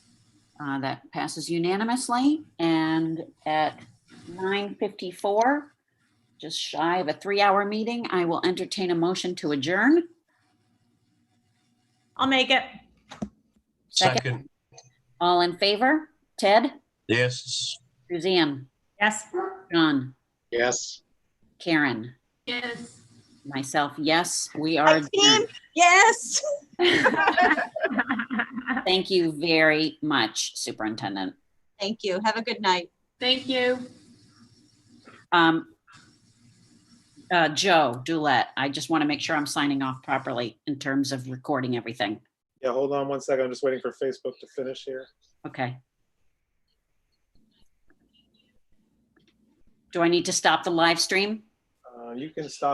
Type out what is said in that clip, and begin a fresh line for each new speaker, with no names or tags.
Uh, That passes unanimously. And at 9:54, just shy of a three-hour meeting, I will entertain a motion to adjourn.
I'll make it.
Second.
Second,
All in favor? Ted?
yes.
Suzanne?
Yes.
John?
Yes.
Karen?
Yes.
Myself, yes, we are. adjourned.
Yes.
Thank you very much, Superintendent.
Thank you. Have a good night.
Thank you.
Um, uh, Joe Dulett, I just want to make sure I'm signing off properly in terms of recording everything.
Yeah, hold on one second. I'm just waiting for Facebook to finish here.
Okay. Do I need to stop the live stream?
Uh, You can stop